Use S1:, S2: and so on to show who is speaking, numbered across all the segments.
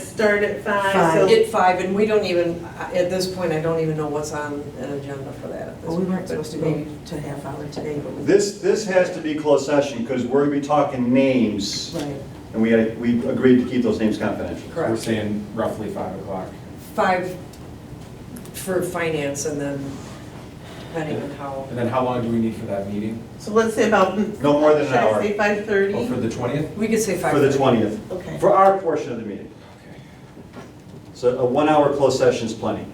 S1: start at five,
S2: Five.
S1: so.
S3: At five, and we don't even, uh, at this point, I don't even know what's on an agenda for that at this
S2: Well, we
S3: point.
S2: weren't supposed to go to half hour today, but we.
S4: This, this has to be closed session because we're going to be talking names
S2: Right.
S4: and we, we agreed to keep those names confidential.
S5: We're
S3: Correct.
S5: saying roughly five o'clock.
S3: Five for finance and then depending on how.
S5: And then how long do we need for that meeting?
S6: So let's say about.
S4: No more than an hour.
S6: Should I say five
S5: Oh, for
S6: thirty?
S5: the twentieth?
S3: We could say five.
S4: For the 20th,
S6: Okay.
S4: for our portion of the meeting.
S5: Okay.
S4: So a one-hour closed session is plenty.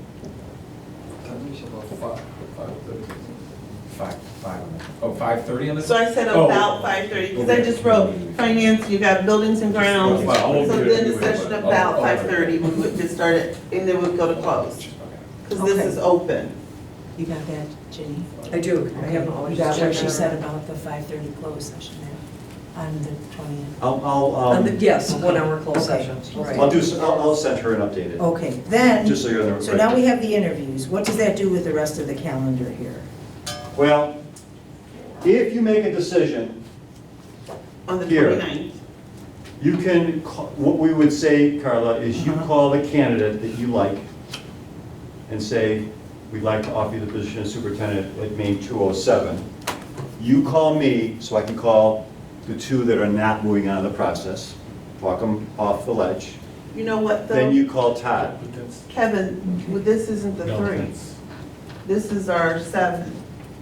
S5: Five, five, on the- oh, five thirty on the?
S6: So I said
S5: Oh.
S6: about five thirty, because I just wrote finance, you got buildings and grounds.
S5: Well, I'll
S6: So
S5: do it
S6: then the
S5: anyway, but-
S6: session
S5: oh,
S6: about
S5: oh, okay.
S6: five thirty, we would just start it, and then we'd go to close,
S5: Okay.
S6: because this
S2: Okay.
S6: is open.
S2: You got that, Jenny?
S3: I do. I
S2: Okay.
S3: have all
S2: You
S3: these
S2: got what
S3: checked
S2: she
S3: out.
S2: said about the 5:30 closed session there on the 20th.
S4: I'll, I'll,
S3: On the-
S4: um,
S3: Yes, one hour closed
S2: Okay.
S3: session,
S4: I'll
S3: right.
S4: do, s- I'll, I'll send her an updated,
S2: Okay, then,
S4: just so you're on the.
S2: Oh. so now we have the interviews. What does that do with the rest of the calendar here?
S4: Well, if you make a decision,
S6: On the
S4: Here.
S6: 29th.
S4: you can, ca- what we would say, Carla, is you
S2: Uh-huh.
S4: call the candidate that you like and say, we'd like to offer you the position of superintendent at Maine 207. You call me, so I can call the two that are not moving on in the process, talk them off the ledge.
S6: You know what,
S4: Then
S6: though,
S4: you call Todd.
S6: Kevin, well, this isn't the three, this is our seven.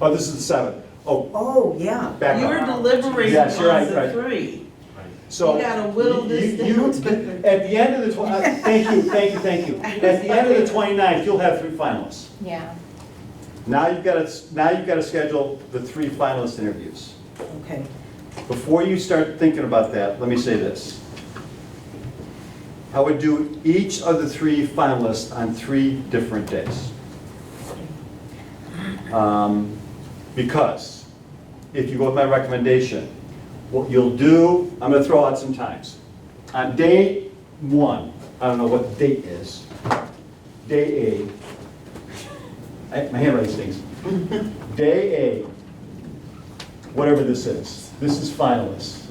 S4: Oh, this is the seven. Oh,
S2: Oh, yeah.
S4: back
S6: You're
S4: up.
S6: deliberating on
S4: Yes, you're right,
S6: the
S4: right.
S6: three.
S4: So.
S6: you gotta whittle this
S4: you- you-
S6: down.
S4: At the end of the, twen- uh, thank you, thank you, thank you. At the end of the 29th, you'll have three finalists.
S7: Yeah.
S4: Now you've got to, now you've got to schedule the three finalist interviews.
S2: Okay.
S4: Before you start thinking about that, let me say this. I would do each of the three finalists on three different days. Um, Because if you go with my recommendation, what you'll do, I'm going to throw out some times. On day one, I don't know what date is, day A, I- my handwriting stinks. Day A, whatever this is. This is finalists.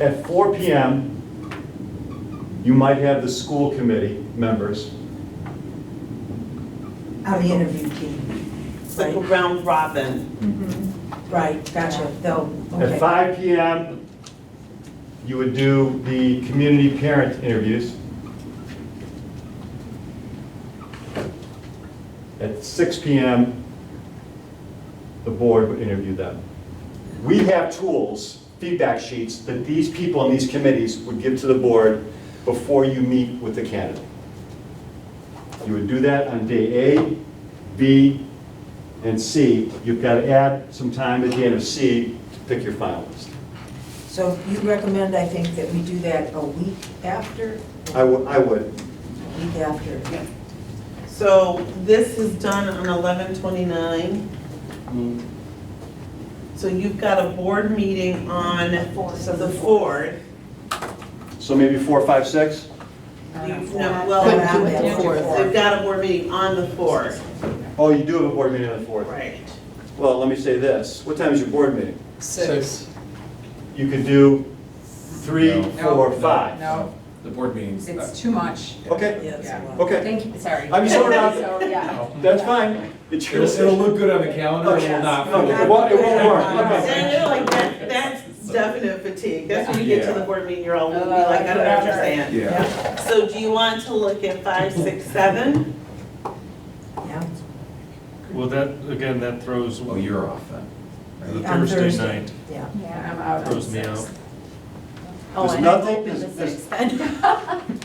S4: At 4 PM, you might have the school committee members.
S2: On the interview team.
S6: It's like a
S2: Right,
S6: round robin.
S2: Right. gotcha, though,
S4: At
S2: okay.
S4: 5 PM, you would do the community parent interviews. At 6 PM, the board would interview them. We have tools, feedback sheets, that these people on these committees would give to the board before you meet with the candidate. You would do that on day A, B, and C. You've got to add some time at the end of C to pick your finalist.
S2: So you recommend, I think, that we do that a week after?
S4: I would, I would.
S2: Week after.
S6: So this is done on eleven twenty-nine. So you've got a board meeting on the fourth.
S4: So maybe four, five, six?
S6: You've, no, well,
S2: Couldn't do it
S7: on the fourth.
S6: they've got a board meeting on the fourth.
S4: Oh, you do have a board meeting on the fourth.
S6: Right.
S4: Well, let me say this. What time is your board meeting?
S3: Six.
S4: You could do three,
S5: No.
S4: four,
S5: No,
S4: five.
S5: no, The board meetings.
S7: It's too much.
S4: Okay,
S3: Yeah, it's a lot.
S4: okay.
S7: Thank you, sorry.
S4: I'm just throwing out-
S7: So, yeah.
S4: That's fine. It's your
S5: It'll, it'll
S4: decision.
S5: look good on the calendar, it will not.
S4: No,
S5: feel-
S4: it won't, it won't work. Okay.
S6: And you're like, that, that's definite fatigue. That's when you get to the board meeting, you're all, we'll be like, Oh, I don't understand.
S5: Yeah.
S6: So do you want to look at five, six, seven?
S2: Yeah,
S8: Well, that, again, that throws
S5: Oh,
S8: the
S5: you're off then.
S2: On
S8: Thursday
S2: Thursday.
S8: night,
S2: yeah.
S7: Yeah, I'm out on
S8: throws me
S7: six.
S8: out.
S7: Oh,
S4: There's
S7: and I'm
S4: nothing-
S7: open the
S4: there's- there's-
S7: sixth then.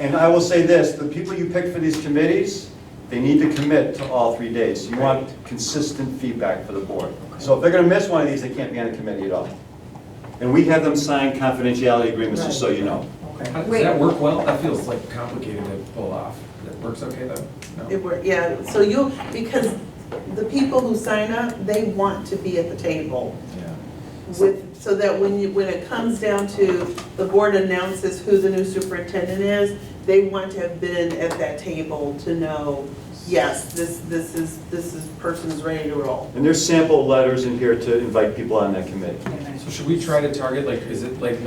S4: And I will say this, the people you pick for these committees, they need to commit to all three days. You want consistent feedback for the board. So if they're gonna miss one of these, they can't be on the committee at all. And we have them sign confidentiality agreements, just so you know.
S2: Okay.
S5: How- Does
S7: Wait.
S5: that work well? That feels like complicated to pull off. That works okay though?
S6: It
S5: No?
S6: were, yeah, so you, because the people who sign up, they want to be at the table
S5: Yeah.
S6: with, so that when you, when it comes down to the board announces who the new superintendent is, they want to have been at that table to know, yes, this, this is, this is, person's ready to roll.
S4: And there's sample letters in here to invite people on that committee.
S5: So should we try to target, like, is it like